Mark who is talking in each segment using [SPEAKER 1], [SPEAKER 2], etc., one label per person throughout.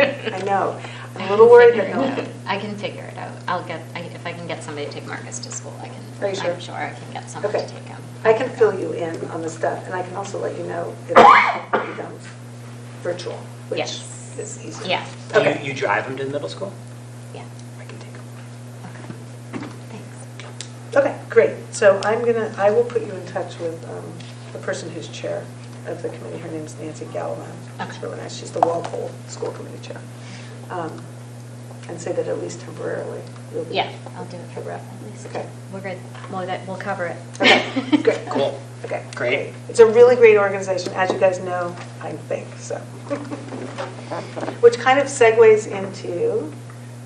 [SPEAKER 1] out.
[SPEAKER 2] I
[SPEAKER 1] I'm a
[SPEAKER 2] can
[SPEAKER 1] little worried
[SPEAKER 2] figure
[SPEAKER 1] that no.
[SPEAKER 2] it out. I can figure it out. I'll get, I- if I can get somebody to take Marcus to school, I can.
[SPEAKER 1] Are you sure?
[SPEAKER 2] I'm sure I can get someone
[SPEAKER 1] Okay.
[SPEAKER 2] to take him.
[SPEAKER 1] I can fill you in on the stuff, and I can also let you know if it becomes virtual, which
[SPEAKER 2] Yes.
[SPEAKER 1] is easier.
[SPEAKER 2] Yeah.
[SPEAKER 3] Do
[SPEAKER 1] Okay.
[SPEAKER 3] you, you drive them to the middle school?
[SPEAKER 2] Yeah,
[SPEAKER 3] I can take them.
[SPEAKER 2] okay. Thanks.
[SPEAKER 1] Okay, great. So I'm gonna, I will put you in touch with um, the person who's chair of the committee. Her name's Nancy Gallivan. She's
[SPEAKER 2] Okay.
[SPEAKER 1] really nice. She's the Walpole School Committee Chair. Um, And say that at least temporarily, you'll be.
[SPEAKER 2] Yeah, I'll do it for Brett at least.
[SPEAKER 1] Okay.
[SPEAKER 2] We're good. We'll, get- we'll cover it.
[SPEAKER 1] Okay, good.
[SPEAKER 3] Cool.
[SPEAKER 1] Okay.
[SPEAKER 3] Great.
[SPEAKER 1] It's a really great organization, as you guys know, I think, so. Which kind of segues into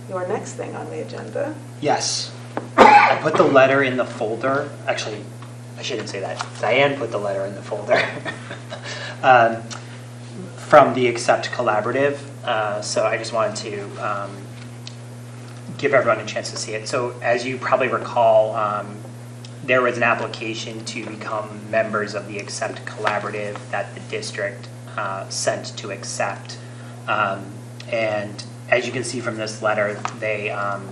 [SPEAKER 1] your next thing on the agenda.
[SPEAKER 3] Yes. I put the letter in the folder. Actually, I shouldn't say that. Diane put the letter in the folder um, from the Accept Collaborative. Uh, so I just wanted to um, give everyone a chance to see it. So as you probably recall, um, there was an application to become members of the Accept Collaborative that the district uh, sent to Accept. Um, And as you can see from this letter, they, um,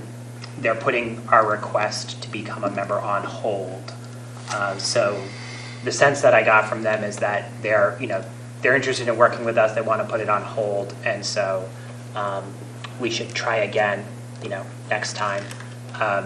[SPEAKER 3] they're putting our request to become a member on hold. Uh, So the sense that I got from them is that they're, you know, they're interested in working with us, they want to put it on hold, and so um, we should try again, you know, next time. Um,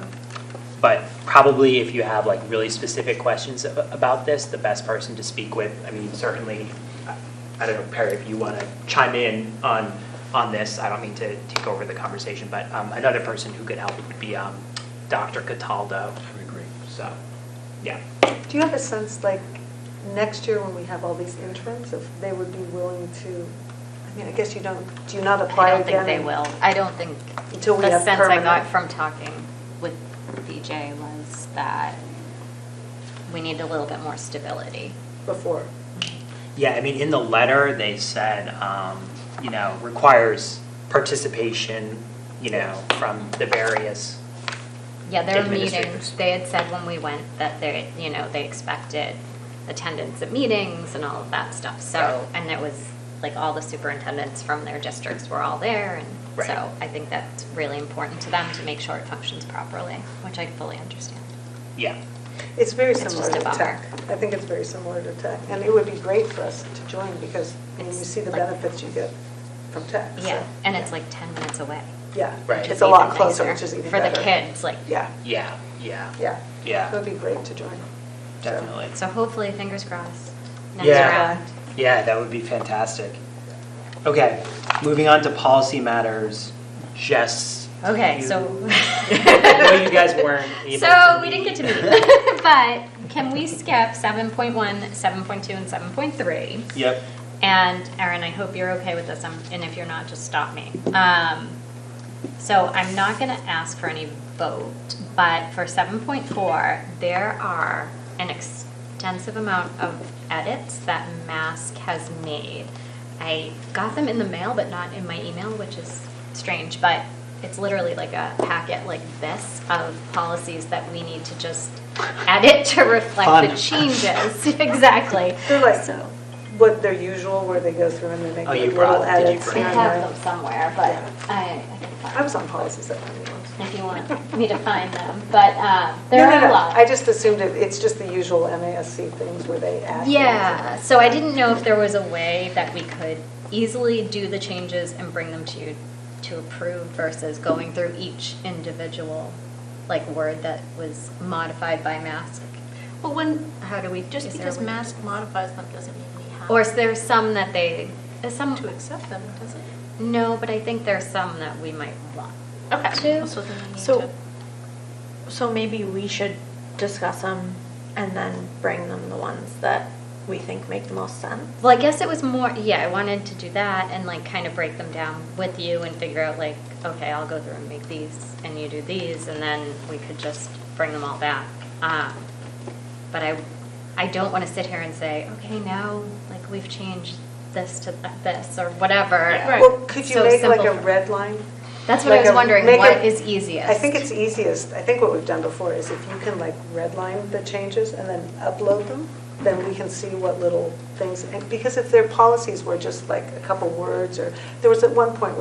[SPEAKER 3] But probably if you have like really specific questions a- about this, the best person to speak with, I mean, certainly, I- I don't know, Perry, if you want to chime in on, on this, I don't mean to take over the conversation, but um, another person who could help would be um, Dr. Cataldo. I agree. So, yeah.
[SPEAKER 1] Do you have a sense, like, next year when we have all these interns, if they would be willing to, I mean, I guess you don't, do you not apply
[SPEAKER 2] I don't
[SPEAKER 1] again?
[SPEAKER 2] think they will. I don't think,
[SPEAKER 1] Until we
[SPEAKER 2] the
[SPEAKER 1] have
[SPEAKER 2] sense I got
[SPEAKER 1] permanent.
[SPEAKER 2] from talking with BJ was that we need a little bit more stability.
[SPEAKER 1] Before?
[SPEAKER 3] Yeah, I mean, in the letter, they said, um, you know, requires participation, you know, from the various,
[SPEAKER 2] Yeah, their
[SPEAKER 3] Administrators.
[SPEAKER 2] meetings, they had said when we went that they, you know, they expected attendance at meetings and all of that stuff, so, and it was, like, all the superintendents from their districts were all there, and
[SPEAKER 3] Right.
[SPEAKER 2] so I think that's really important to them to make sure it functions properly, which I fully understand.
[SPEAKER 3] yeah.
[SPEAKER 1] It's very
[SPEAKER 2] It's
[SPEAKER 1] similar
[SPEAKER 2] just
[SPEAKER 1] to
[SPEAKER 2] a bummer.
[SPEAKER 1] tech. I think it's very similar to tech, and it would be great for us to join because I mean, you
[SPEAKER 2] It's
[SPEAKER 1] see the
[SPEAKER 2] like-
[SPEAKER 1] benefits you get from tech. so-
[SPEAKER 2] Yeah, and it's like ten minutes away.
[SPEAKER 1] Yeah,
[SPEAKER 3] Right.
[SPEAKER 2] which
[SPEAKER 1] it's
[SPEAKER 2] is
[SPEAKER 1] a lot
[SPEAKER 2] even
[SPEAKER 1] closer,
[SPEAKER 2] nicer
[SPEAKER 1] which is even
[SPEAKER 2] For
[SPEAKER 1] better.
[SPEAKER 2] the kids, like,
[SPEAKER 1] Yeah,
[SPEAKER 3] Yeah, yeah,
[SPEAKER 1] yeah. It
[SPEAKER 3] yeah,
[SPEAKER 1] would be great to join. So-
[SPEAKER 3] definitely.
[SPEAKER 2] so hopefully, fingers crossed, next
[SPEAKER 3] Yeah.
[SPEAKER 2] round.
[SPEAKER 3] Yeah, that would be fantastic. Okay, moving on to policy matters, Jess.
[SPEAKER 2] Okay,
[SPEAKER 3] you-
[SPEAKER 2] so.
[SPEAKER 3] I know you guys weren't able
[SPEAKER 2] So
[SPEAKER 3] to
[SPEAKER 2] we didn't
[SPEAKER 3] meet.
[SPEAKER 2] get to meet, but can we skip seven point one, seven point two, and seven point three?
[SPEAKER 3] Yep,
[SPEAKER 2] And Erin, I hope you're okay with this, um, and if you're not, just stop me. Um, So I'm not going to ask for any vote, but for 7.4, there are an extensive amount of edits that Mask has made. I got them in the mail, but not in my email, which is strange, but it's literally like a packet like this of policies that we need to just edit to reflect the
[SPEAKER 3] Fun.
[SPEAKER 2] changes. Exactly.
[SPEAKER 1] They're like,
[SPEAKER 2] So-
[SPEAKER 1] what their usual, where they go through and they make
[SPEAKER 3] Oh,
[SPEAKER 1] like,
[SPEAKER 3] you
[SPEAKER 1] little
[SPEAKER 3] brought- did you
[SPEAKER 1] edits.
[SPEAKER 3] bring
[SPEAKER 2] I
[SPEAKER 1] here and
[SPEAKER 2] have
[SPEAKER 1] there.
[SPEAKER 2] them somewhere, but I, I can
[SPEAKER 1] I
[SPEAKER 2] find
[SPEAKER 1] was on policies at one once.
[SPEAKER 2] if you want me to find them, but uh,
[SPEAKER 1] No,
[SPEAKER 2] there
[SPEAKER 1] no,
[SPEAKER 2] are a
[SPEAKER 1] no.
[SPEAKER 2] lot.
[SPEAKER 1] I just assumed it, it's just the usual MASC things where they add. things.
[SPEAKER 2] Yeah, so I didn't know if there was a way that we could easily do the changes and bring them to you to approve versus going through each individual, like, word that was modified by mask.
[SPEAKER 4] Well, when, uh,
[SPEAKER 2] How do we?
[SPEAKER 4] just
[SPEAKER 2] is there a
[SPEAKER 4] because
[SPEAKER 2] way-
[SPEAKER 4] mask modifies them doesn't mean we have.
[SPEAKER 2] Or is there some that they, uh, some,
[SPEAKER 4] To accept them, does it?
[SPEAKER 2] no, but I think there's some that we might want.
[SPEAKER 4] Okay.
[SPEAKER 2] To-
[SPEAKER 4] So then we need
[SPEAKER 5] So,
[SPEAKER 4] to.
[SPEAKER 5] so maybe we should discuss them and then bring them the ones that we think make the most sense.
[SPEAKER 2] Well, I guess it was more, yeah, I wanted to do that and like kind of break them down with you and figure out like, okay, I'll go through and make these and you do these and then we could just bring them all back. Um, But I, I don't want to sit here and say, okay, now, like we've changed this to this or whatever.
[SPEAKER 4] Right.
[SPEAKER 1] Well, could you
[SPEAKER 2] So
[SPEAKER 1] make like
[SPEAKER 2] simple
[SPEAKER 1] a
[SPEAKER 2] for-
[SPEAKER 1] red line?
[SPEAKER 2] That's what I
[SPEAKER 1] Like
[SPEAKER 2] was
[SPEAKER 1] a-
[SPEAKER 2] wondering,
[SPEAKER 1] make
[SPEAKER 2] what
[SPEAKER 1] a-
[SPEAKER 2] is easiest?
[SPEAKER 1] I think it's easiest, I think what we've done before is if you can like redline the changes and then upload them, then we can see what little things, and because if their policies were just like a couple words, or, there was at one point